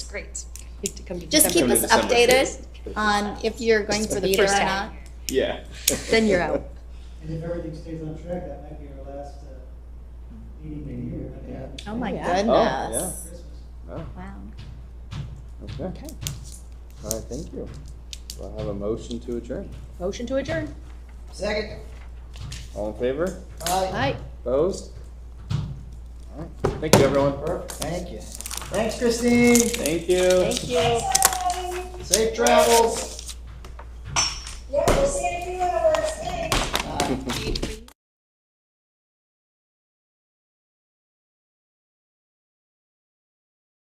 great. Need to come to Just keep December. us Come to December updated first. on if you're going Just to for the be there first or half. not. Yeah. Then you're out. And if everything stays on track, that might be our last uh, meeting in the year. I think. Oh, my Yeah. Oh, goodness. Christmas. Oh, Wow. okay. All Okay. right, thank you. Do I have a motion to adjourn? Motion to adjourn. Second. All in favor? Aye. Aye. Opposed? All right. Thank you, everyone. Thank you. Thanks, Christine. Thank you. Thank you. Safe travels. Yeah, we'll see if you in the first thing. Uh,